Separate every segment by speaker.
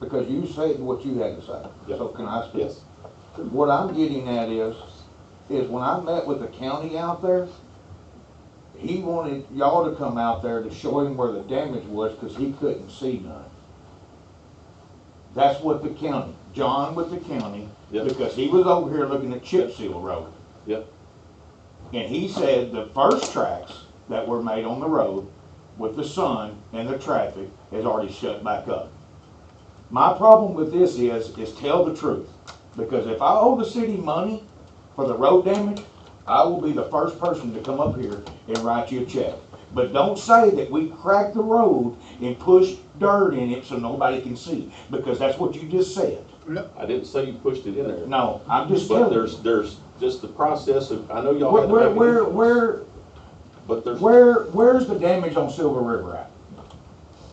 Speaker 1: Because you said what you had to say,
Speaker 2: Yeah.
Speaker 1: so can I speak?
Speaker 2: Yes,
Speaker 1: What I'm getting at is, is when I met with the county out there, he wanted y'all to come out there to show him where the damage was, cause he couldn't see none. That's what the county, John with the county,
Speaker 2: Yeah.
Speaker 1: because he was over here looking at chip seal road.
Speaker 2: Yeah.
Speaker 1: And he said the first tracks that were made on the road with the sun and the traffic is already shut back up. My problem with this is, is tell the truth, because if I owe the city money for the road damage, I will be the first person to come up here and write you a check. But don't say that we cracked the road and pushed dirt in it so nobody can see, because that's what you just said.
Speaker 2: I didn't say you pushed it in there.
Speaker 1: No, I'm just
Speaker 2: But
Speaker 1: telling you.
Speaker 2: there's, there's just the process of, I know y'all
Speaker 1: Where,
Speaker 2: had to
Speaker 1: where,
Speaker 2: make an
Speaker 1: where,
Speaker 2: influence,
Speaker 1: where,
Speaker 2: but there's,
Speaker 1: where, where's the damage on Silver River at?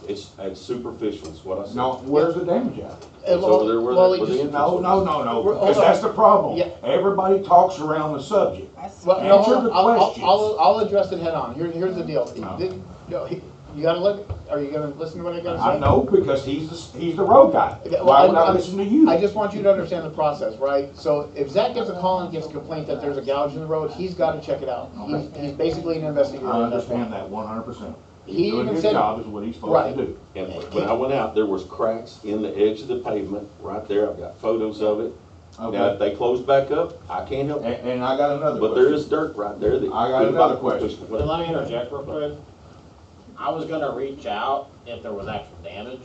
Speaker 2: it's, it's superficial, is what I said.
Speaker 1: No, where's the damage at?
Speaker 2: It's over there where the-
Speaker 3: Well, he
Speaker 2: where the
Speaker 3: just-
Speaker 2: entrance
Speaker 1: No,
Speaker 2: was.
Speaker 1: no, no, no,
Speaker 3: We're- oh,
Speaker 1: because that's the problem.
Speaker 3: Yeah.
Speaker 1: Everybody talks around the subject.
Speaker 3: Well, no, hold
Speaker 1: Answer the
Speaker 3: on. I'll, I'll-
Speaker 1: questions.
Speaker 3: I'll, I'll address it head on, here, here's the deal.
Speaker 1: No.
Speaker 3: Did- no, he- You gotta look, are you gonna listen to what I gotta say?
Speaker 1: I know because he's, the- he's the road guy.
Speaker 3: Okay, well,
Speaker 1: Why would I
Speaker 3: I'm-
Speaker 1: listen to you?
Speaker 3: I just want you to understand the process, right? So if Zach gets a call and gets a complaint that there's a gouge in the road, he's gotta check it out. He's, he's basically an investigator.
Speaker 1: I understand that one hundred percent.
Speaker 3: He
Speaker 1: Doing
Speaker 3: even
Speaker 1: his
Speaker 3: said-
Speaker 1: job is what he's supposed
Speaker 3: Right.
Speaker 1: to do.
Speaker 2: And when I went out, there was cracks in the edge of the pavement, right there, I've got photos of it. Now, if
Speaker 1: Okay,
Speaker 2: they close back up, I can't help
Speaker 1: and,
Speaker 2: it,
Speaker 1: and I got another
Speaker 2: but there
Speaker 1: question.
Speaker 2: is dirt right there that.
Speaker 1: I got another question.
Speaker 4: Well, Let me interject real quick. I was gonna reach out if there was actual damage.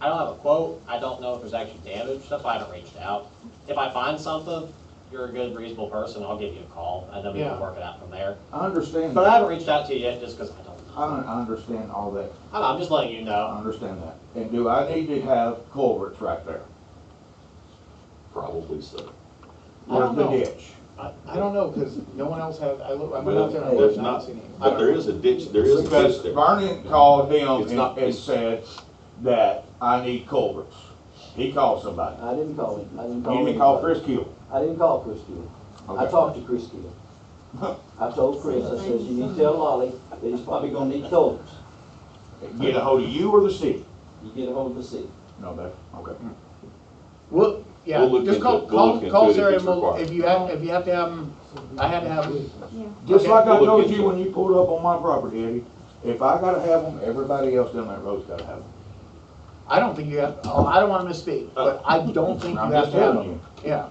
Speaker 4: I don't have a quote, I don't know if there's actually damage, that's why I haven't reached out. If I find something, you're a good reasonable person, I'll give you a call, and then we
Speaker 3: Yeah.
Speaker 4: can work it out from there.
Speaker 1: I understand,
Speaker 4: But I
Speaker 1: that.
Speaker 4: haven't reached out to you yet, just because I don't
Speaker 1: I,
Speaker 4: know.
Speaker 1: un- I understand all that,
Speaker 4: I don't know, I'm just letting you know.
Speaker 1: I understand that. And do I need to have culverts right there?
Speaker 2: Probably so.
Speaker 3: I
Speaker 1: Where's
Speaker 3: don't
Speaker 1: the
Speaker 3: know.
Speaker 1: ditch?
Speaker 3: I, I don't know, cause no one else had, I look, I went out there and
Speaker 2: There's
Speaker 3: looked, I
Speaker 2: not,
Speaker 3: haven't seen anyone.
Speaker 2: but there is a ditch, there is a
Speaker 1: Because
Speaker 2: ditch there.
Speaker 1: Vernon called him
Speaker 2: It's
Speaker 1: and,
Speaker 2: not-
Speaker 1: and said that I need culverts. He called somebody.
Speaker 5: I didn't call him, I didn't call
Speaker 1: You
Speaker 5: him.
Speaker 1: didn't call Chris Keel.
Speaker 5: I didn't call Chris Gill. I
Speaker 1: Okay.
Speaker 5: talked to Chris Gill. I told Chris, I says, you need to tell Lolly that he's probably gonna need culverts.
Speaker 1: Get a hold of you or the city?
Speaker 5: You get ahold of the city.
Speaker 1: No, that, okay.
Speaker 3: Well, yeah,
Speaker 2: We'll look
Speaker 3: just call,
Speaker 2: into it. We'll
Speaker 3: call,
Speaker 2: look into it
Speaker 3: call
Speaker 2: if
Speaker 3: Sarah
Speaker 2: it's
Speaker 3: and we'll,
Speaker 2: required.
Speaker 3: if you have, if you have to have them, I had to have 'em-
Speaker 1: Just
Speaker 3: Okay.
Speaker 1: like I
Speaker 2: We'll
Speaker 1: told
Speaker 2: look
Speaker 1: you
Speaker 2: into
Speaker 1: when you pulled up on my property, Eddie, if I gotta have them, everybody else down that road's gotta have them.
Speaker 3: I don't think you have, oh, I don't wanna misspeak, but I don't think you
Speaker 1: Uh, I'm
Speaker 3: have
Speaker 1: just
Speaker 3: to have
Speaker 1: telling
Speaker 3: them,
Speaker 1: you.
Speaker 3: yeah.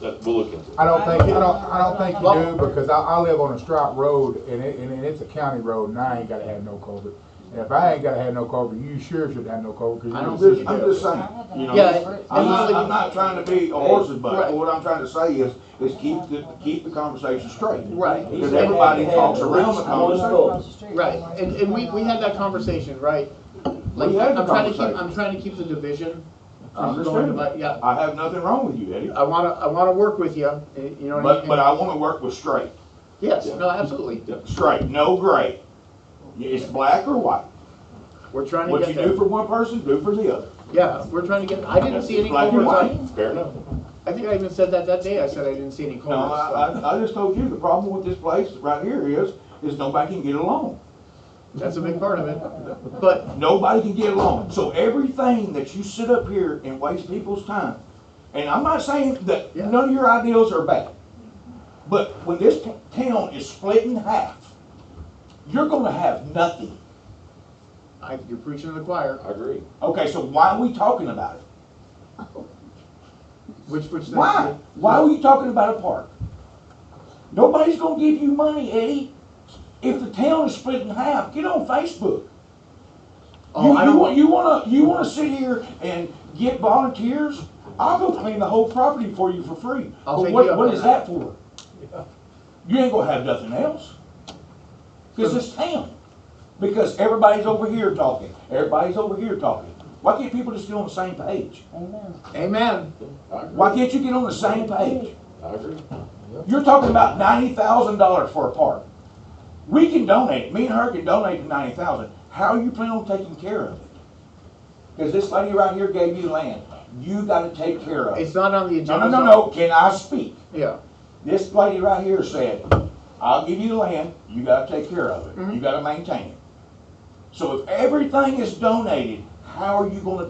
Speaker 2: That- We'll look into it.
Speaker 6: I don't think, I don't, I don't think you do, because I, I live on a strip road, and it, and it's a county road, and I ain't gotta have no culvert. And if I ain't gotta have no culvert, you sure should have no culvert,
Speaker 3: I
Speaker 6: because
Speaker 3: don't
Speaker 1: I'm
Speaker 6: you.
Speaker 1: just, I'm just saying, you know,
Speaker 3: Yeah,
Speaker 1: I'm not,
Speaker 3: usually-
Speaker 1: I'm not trying to be a horse's butt,
Speaker 3: Right.
Speaker 1: what I'm trying to say is, is keep the, keep the conversation straight.
Speaker 3: Right.
Speaker 1: Because everybody talks around the conversation.
Speaker 3: Right, and, and we, we had that conversation, right? Like,
Speaker 1: We had the
Speaker 3: I'm trying to keep,
Speaker 1: conversation.
Speaker 3: I'm trying to keep the division
Speaker 1: I
Speaker 3: from going,
Speaker 1: understand
Speaker 3: but,
Speaker 1: that.
Speaker 3: yeah,
Speaker 1: I have nothing wrong with you, Eddie,
Speaker 3: I wanna, I wanna work with you, eh, you know what I
Speaker 1: but,
Speaker 3: mean?
Speaker 1: but I wanna work with straight,
Speaker 3: Yes, no, absolutely,
Speaker 1: straight, no gray. It's black or white.
Speaker 3: we're trying
Speaker 1: What
Speaker 3: to
Speaker 1: you
Speaker 3: get
Speaker 1: do
Speaker 3: there,
Speaker 1: for one person, do for the other.
Speaker 3: yeah, we're trying to get, I didn't see any
Speaker 1: Black and
Speaker 3: culverts,
Speaker 1: white.
Speaker 3: I,
Speaker 2: Fair enough.
Speaker 3: I think I even said that that day, I said I didn't see any
Speaker 1: No, I,
Speaker 3: culverts, so,
Speaker 1: I, I just told you, the problem with this place right here is, is nobody can get along.
Speaker 3: that's a big part of it, but
Speaker 1: Nobody can get along. So everything that you sit up here and waste people's time, and I'm not saying that
Speaker 3: Yeah.
Speaker 1: none of your ideas are bad, but when this t- town is split in half, you're gonna have nothing.
Speaker 3: I, you're preaching to the choir,
Speaker 2: I agree.
Speaker 1: Okay, so why are we talking about it?
Speaker 3: which, which.
Speaker 1: Why? Why are we talking about a park? Nobody's gonna give you money, Eddie. If the town is split in half, get on Facebook.
Speaker 3: Oh,
Speaker 1: You,
Speaker 3: I
Speaker 1: you
Speaker 3: don't
Speaker 1: want,
Speaker 3: want,
Speaker 1: you wanna, you wanna sit here and get volunteers? I'll go clean the whole property for you for free.
Speaker 3: I'll
Speaker 1: But
Speaker 3: take you
Speaker 1: what,
Speaker 3: up
Speaker 1: what
Speaker 3: on
Speaker 1: is that
Speaker 3: that.
Speaker 1: for? You ain't gonna have nothing else. Cause it's town. Because everybody's over here talking, everybody's over here talking. Why can't people just get on the same page?
Speaker 3: amen,
Speaker 2: I agree.
Speaker 1: Why can't you get on the same page?
Speaker 2: I agree.
Speaker 1: You're talking about ninety thousand dollars for a park. We can donate, me and her can donate the ninety thousand. How you plan on taking care of it? Cause this lady right here gave you land. You gotta take care of
Speaker 3: it's
Speaker 1: it.
Speaker 3: not on the
Speaker 1: No,
Speaker 3: agenda.
Speaker 1: no, no, no, can I speak?
Speaker 3: Yeah,
Speaker 1: This lady right here said, I'll give you the land, you gotta take care of it, you gotta maintain it. So if everything is donated, how are you gonna